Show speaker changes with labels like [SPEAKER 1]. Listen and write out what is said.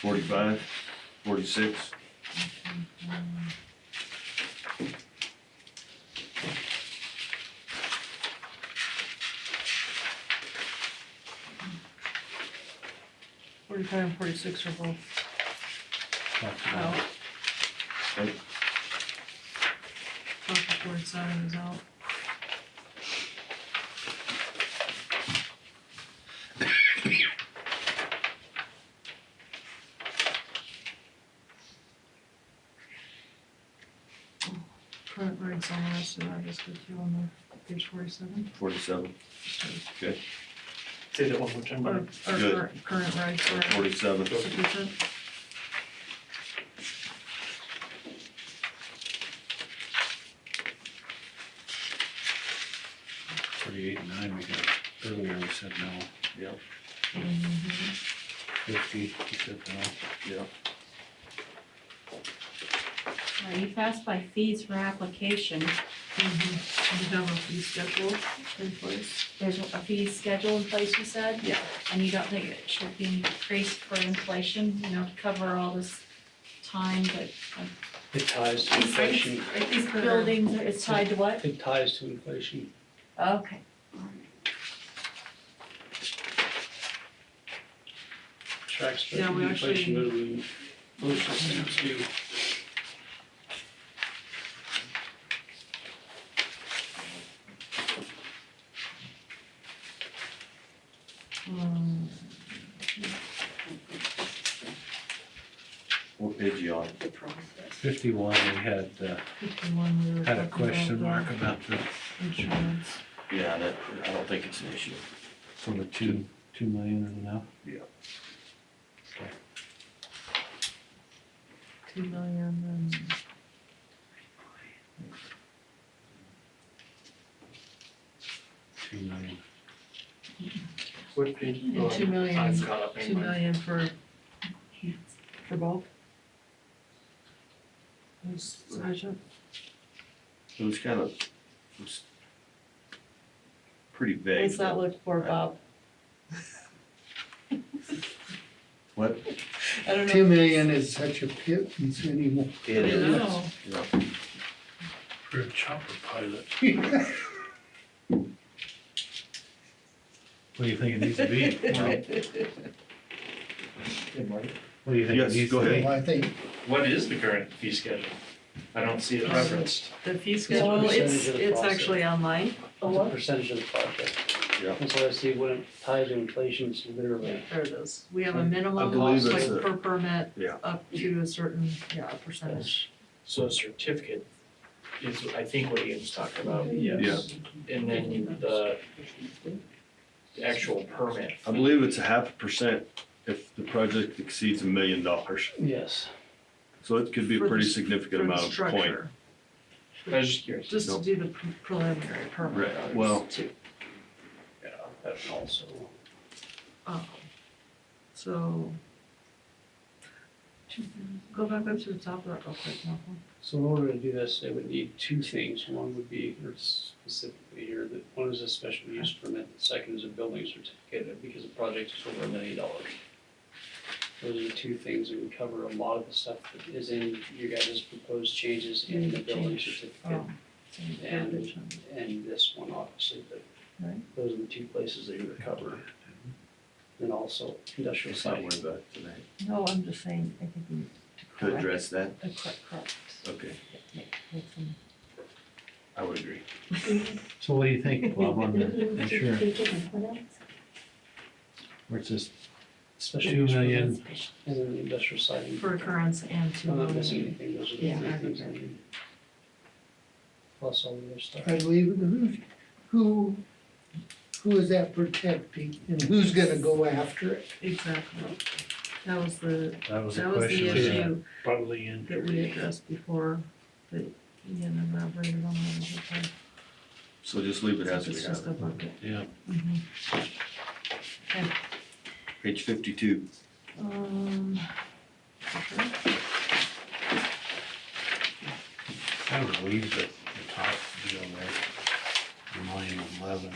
[SPEAKER 1] Forty-five, forty-six,
[SPEAKER 2] Forty-five and forty-six are both out.
[SPEAKER 1] Okay.
[SPEAKER 2] Both the forty-seven is out. Current rates on the rest of that is good too on the page forty-seven.
[SPEAKER 1] forty-seven, okay,
[SPEAKER 3] Say that one more time,
[SPEAKER 2] Our,
[SPEAKER 3] Mark.
[SPEAKER 2] our
[SPEAKER 1] Good.
[SPEAKER 2] current, current rates are
[SPEAKER 1] forty-seven,
[SPEAKER 2] sufficient.
[SPEAKER 4] Forty-eight and nine, we got, earlier we said no,
[SPEAKER 1] yeah,
[SPEAKER 4] fifty, we said no.
[SPEAKER 1] yeah.
[SPEAKER 5] Now, you've asked by fees for application,
[SPEAKER 2] Mhm. We have a fee schedule in place.
[SPEAKER 5] there's a fee schedule in place, you said?
[SPEAKER 2] Yeah.
[SPEAKER 5] And you don't think it should be increased for inflation, you know, to cover all this time, but uh,
[SPEAKER 3] It ties to inflation.
[SPEAKER 2] I think the-
[SPEAKER 5] buildings, are- it's tied to what?
[SPEAKER 3] It ties to inflation.
[SPEAKER 5] Okay.
[SPEAKER 3] Tracks
[SPEAKER 2] Yeah, we
[SPEAKER 3] tracking inflation,
[SPEAKER 2] actually-
[SPEAKER 3] but we, motion stands due.
[SPEAKER 2] Um,
[SPEAKER 1] What page you on?
[SPEAKER 4] Fifty-one, we had, uh,
[SPEAKER 2] Fifty-one, we were
[SPEAKER 4] had a
[SPEAKER 2] talking
[SPEAKER 4] question
[SPEAKER 2] about
[SPEAKER 4] mark about the,
[SPEAKER 2] the insurance.
[SPEAKER 1] Yeah, that, I don't think it's an issue.
[SPEAKER 4] so the two, two million is enough?
[SPEAKER 1] Yeah.
[SPEAKER 4] Okay.
[SPEAKER 2] two million and.
[SPEAKER 4] Two million,
[SPEAKER 3] What page?
[SPEAKER 2] And
[SPEAKER 3] oh,
[SPEAKER 2] two million-
[SPEAKER 3] I've caught up
[SPEAKER 2] Two
[SPEAKER 3] in my,
[SPEAKER 2] million for, for both? Is sufficient?
[SPEAKER 1] It was kind of, it was pretty vague.
[SPEAKER 2] What's that look for, Bob?
[SPEAKER 1] What?
[SPEAKER 2] I don't know.
[SPEAKER 6] Two million is such a pittance anymore.
[SPEAKER 1] It
[SPEAKER 2] I
[SPEAKER 1] is,
[SPEAKER 2] know.
[SPEAKER 1] yeah,
[SPEAKER 4] for a chopper pilot. What do you think it needs to be? Well, What do you think it
[SPEAKER 1] Yes,
[SPEAKER 4] needs
[SPEAKER 1] go
[SPEAKER 4] to
[SPEAKER 1] ahead.
[SPEAKER 4] be?
[SPEAKER 6] Well, I think
[SPEAKER 3] what is the current fee schedule? I don't see it
[SPEAKER 2] Um,
[SPEAKER 3] referenced.
[SPEAKER 2] The fee schedule,
[SPEAKER 3] percentage
[SPEAKER 2] it's,
[SPEAKER 3] of the
[SPEAKER 2] it's
[SPEAKER 3] cost.
[SPEAKER 2] actually online.
[SPEAKER 7] It's a percentage of the project.
[SPEAKER 1] Yeah.
[SPEAKER 7] And so I see when it ties to inflation, it's literally,
[SPEAKER 2] There it is. We have a minimum
[SPEAKER 1] believe
[SPEAKER 2] cost like
[SPEAKER 1] it's a-
[SPEAKER 2] per permit
[SPEAKER 1] yeah.
[SPEAKER 2] up to a certain, yeah, a percentage.
[SPEAKER 3] So a certificate is, I think, what Ian's talking about.
[SPEAKER 1] Yes.
[SPEAKER 3] And then you- the actual permit.
[SPEAKER 1] I believe it's a half a percent if the project exceeds a million dollars,
[SPEAKER 7] yes.
[SPEAKER 1] so it could be a
[SPEAKER 2] For the-
[SPEAKER 1] pretty
[SPEAKER 2] for
[SPEAKER 1] significant
[SPEAKER 2] the
[SPEAKER 1] amount of point.
[SPEAKER 2] structure,
[SPEAKER 3] I was just curious.
[SPEAKER 2] Just to
[SPEAKER 1] Nope.
[SPEAKER 2] do the pre- preliminary permit.
[SPEAKER 1] Right, well-
[SPEAKER 2] too.
[SPEAKER 3] Yeah, that's also.
[SPEAKER 2] Um, So. Go back up to the top of that real quick, Malcolm.
[SPEAKER 7] So in order to do this, they would need two things. One would be, or specifically here, that one is a special use permit, the second is a building certificate, because the project is over a million dollars. Those are the two things that would cover a lot of the stuff that is in your guys' proposed changes in the building certificate
[SPEAKER 2] Um,
[SPEAKER 7] And- and this one obviously, but
[SPEAKER 2] Right.
[SPEAKER 7] those are the two places they would cover. And also industrial
[SPEAKER 1] Let's not
[SPEAKER 7] siding.
[SPEAKER 1] worry about it tonight.
[SPEAKER 2] No, I'm just saying, I think we need to
[SPEAKER 1] To
[SPEAKER 2] correct,
[SPEAKER 1] address that,
[SPEAKER 2] uh, correct, correct.
[SPEAKER 1] okay,
[SPEAKER 2] Make- make some-
[SPEAKER 1] I would agree.
[SPEAKER 4] So what do you think, Bob, on the insurance? Where it says
[SPEAKER 7] Special
[SPEAKER 4] two
[SPEAKER 7] use permit
[SPEAKER 4] million,
[SPEAKER 7] And then the industrial siding.
[SPEAKER 2] For occurrence and to.
[SPEAKER 7] I'm not missing anything, those are the
[SPEAKER 2] Yeah, I
[SPEAKER 7] three things. I
[SPEAKER 2] remember.
[SPEAKER 7] need. Plus all the other stuff.
[SPEAKER 6] I believe, who, who, who is that protecting and who's gonna go after it?
[SPEAKER 2] Exactly. That was the,
[SPEAKER 4] that was a
[SPEAKER 2] that was
[SPEAKER 4] question.
[SPEAKER 2] the
[SPEAKER 4] we had.
[SPEAKER 2] issue
[SPEAKER 4] Probably in.
[SPEAKER 2] that we addressed before, that Ian elaborated on that. was okay.
[SPEAKER 1] So just leave it as we
[SPEAKER 2] It's just
[SPEAKER 1] have
[SPEAKER 2] a
[SPEAKER 1] it.
[SPEAKER 2] bucket.
[SPEAKER 4] Yeah.
[SPEAKER 2] Mhm.
[SPEAKER 1] Page fifty-two.
[SPEAKER 2] Um, okay.
[SPEAKER 4] I would leave the, the top deal there, the million eleven.